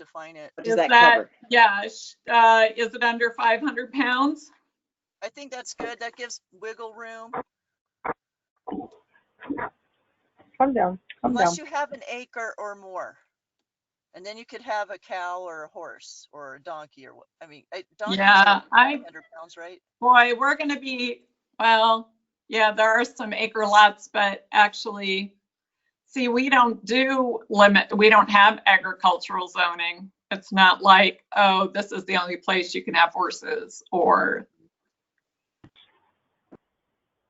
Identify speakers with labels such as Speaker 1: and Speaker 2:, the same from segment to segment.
Speaker 1: define it.
Speaker 2: What
Speaker 3: Is
Speaker 2: does that
Speaker 3: that-
Speaker 2: cover?
Speaker 3: Yeah, sh- uh, is it under five hundred pounds?
Speaker 1: I think that's good. That gives wiggle room.
Speaker 4: Calm down, calm down.
Speaker 1: Unless you have an acre or more. And then you could have a cow or a horse or a donkey or, what- I mean, a donkey.
Speaker 3: Yeah, I,
Speaker 1: Hundred pounds, right?
Speaker 3: boy, we're gonna be, well, yeah, there are some acre lots, but actually, see, we don't do limit, we don't have agricultural zoning. It's not like, oh, this is the only place you can have horses or.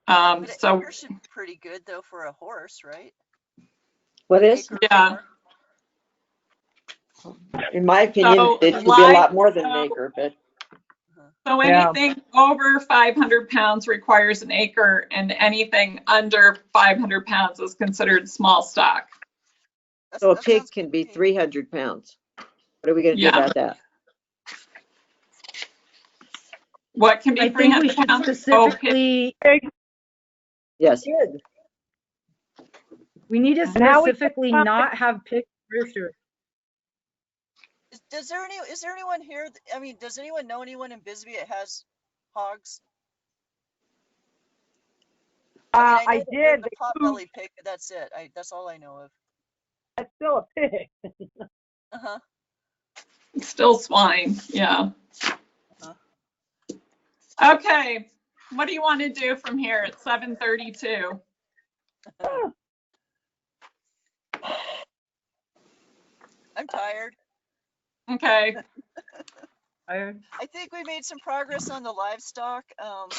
Speaker 3: Um,
Speaker 1: But an
Speaker 3: so,
Speaker 1: acre should be pretty good though for a horse, right?
Speaker 2: What is,
Speaker 1: Acre or
Speaker 3: Yeah.
Speaker 1: more.
Speaker 2: in my opinion,
Speaker 3: So,
Speaker 2: it should be a lot more than an
Speaker 3: livestock-
Speaker 2: acre,
Speaker 4: Uh,
Speaker 2: but
Speaker 3: so
Speaker 4: Yeah.
Speaker 3: anything over five hundred pounds requires an acre and anything under five hundred pounds is considered small stock.
Speaker 1: That's-
Speaker 2: so a
Speaker 1: that sounds
Speaker 2: pig can be
Speaker 1: good.
Speaker 2: three hundred pounds. What are we gonna do
Speaker 3: Yeah.
Speaker 2: about that?
Speaker 3: What can be
Speaker 5: I think we
Speaker 3: 300
Speaker 5: should
Speaker 3: pounds? Oh, okay.
Speaker 5: specifically,
Speaker 2: Yes,
Speaker 5: we need to
Speaker 4: Now we-
Speaker 5: specifically not have pigs roosters.
Speaker 1: Is- Does there any, is there anyone here, th- I mean, does anyone know anyone in Bisbee that has hogs?
Speaker 4: Uh,
Speaker 1: mean,
Speaker 4: I
Speaker 1: know that there's
Speaker 4: did,
Speaker 1: a
Speaker 4: they moved,
Speaker 1: Potbelly pig, but that's it. I, that's all I know of.
Speaker 4: that's still a pig.
Speaker 1: Uh-huh.
Speaker 3: Still swine, yeah. Okay, what do you want to do from here at 7:32?
Speaker 1: I'm
Speaker 4: Uh,
Speaker 1: tired.
Speaker 3: Okay,
Speaker 1: I think we made some progress on the livestock. Um,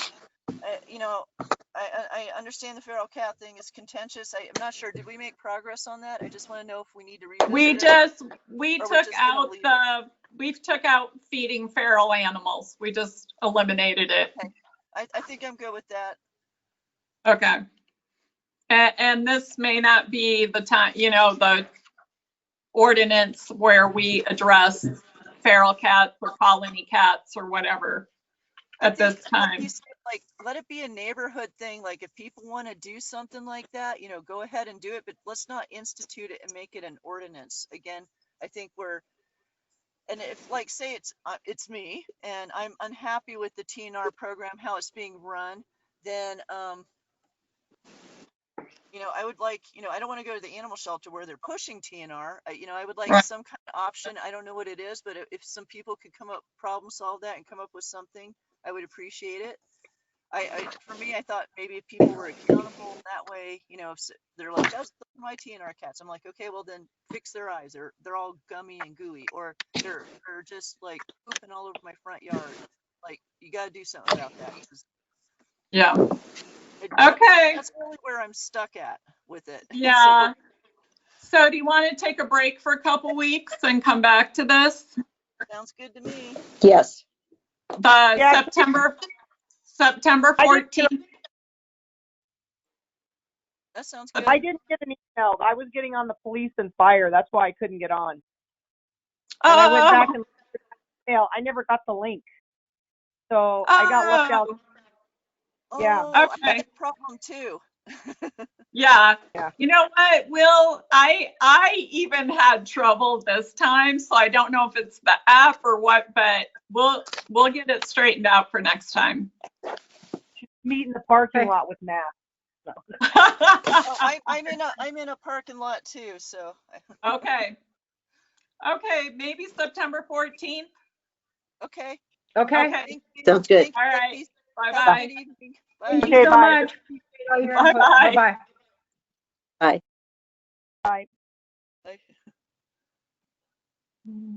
Speaker 1: I- you know, I, I, I understand the feral cat thing is contentious. I, I'm not sure. Did we make progress on that? I just want to know if we need to revisit
Speaker 3: we
Speaker 1: it.
Speaker 3: just, we
Speaker 1: Or we're
Speaker 3: took
Speaker 1: just gonna
Speaker 3: out
Speaker 1: leave it?
Speaker 3: the, we took out feeding feral animals. We just eliminated it.
Speaker 1: I, I think I'm good with that.
Speaker 3: Okay. And, and this may not be the time, you know, the ordinance where we address feral cats or colony cats or whatever
Speaker 1: I
Speaker 3: at
Speaker 1: think
Speaker 3: this
Speaker 1: let it
Speaker 3: time.
Speaker 1: be s- Like, let it be a neighborhood thing. Like if people want to do something like that, you know, go ahead and do it, but let's not institute it and make it an ordinance. Again, I think we're, and if like, say it's, uh, it's me and I'm unhappy with the TNR program, how it's being run, then, um, you know, I would like, you know, I don't want to go to the animal shelter where they're pushing TNR. I- You know, I would like
Speaker 3: Right.
Speaker 1: some kind of option. I don't know what it is, but if- if some people could come up, problem solve that and come up with something, I would appreciate it. I, I, for me, I thought maybe if people were accountable that way, you know, if s- they're like, that's my TNR cats. I'm like, okay, well then fix their eyes. They're, they're all gummy and gooey, or they're, they're just like pooping all over my front yard. Like, you gotta do something about that. 'cause
Speaker 3: Yeah,
Speaker 1: it-
Speaker 3: okay,
Speaker 1: That's really where I'm stuck at with it. So
Speaker 3: yeah. So do you want to take a break for a couple weeks and come back to this?
Speaker 1: Sounds good to me.
Speaker 2: yes.
Speaker 3: The
Speaker 4: Yeah.
Speaker 3: September, September
Speaker 4: I
Speaker 3: 14th?
Speaker 1: That sounds
Speaker 3: Okay.
Speaker 1: good.
Speaker 4: I didn't get an email. I was getting on the police and fire. That's why I couldn't get on. And I went back
Speaker 3: Oh,
Speaker 4: and looked at the email. I never got the link. So I got left out.
Speaker 3: oh,
Speaker 4: yeah.
Speaker 1: Oh, I have
Speaker 3: Okay.
Speaker 1: that Problem too.
Speaker 3: Yeah,
Speaker 4: Yeah.
Speaker 3: you know what, Will, I, I even had trouble this time, so I don't know if it's the app or what, but we'll, we'll get it straightened out for next time.
Speaker 4: Meet in the parking
Speaker 5: Okay.
Speaker 4: lot with Matt.
Speaker 1: Oh, I, I'm in a, I'm in a parking lot too, so.
Speaker 3: Okay. Okay, maybe September 14th.
Speaker 1: Okay.
Speaker 5: Okay,
Speaker 3: Okay,
Speaker 1: thank you.
Speaker 2: Sounds good.
Speaker 1: Thank you,
Speaker 3: All right.
Speaker 1: ladies. Have a
Speaker 3: bye-bye.
Speaker 1: good evening.
Speaker 5: thank
Speaker 1: Bye.
Speaker 4: Okay,
Speaker 5: you so
Speaker 4: bye.
Speaker 5: much. Appreciate all your input.
Speaker 3: Bye-bye.
Speaker 5: Bye-bye.
Speaker 1: Bye.
Speaker 3: Mm.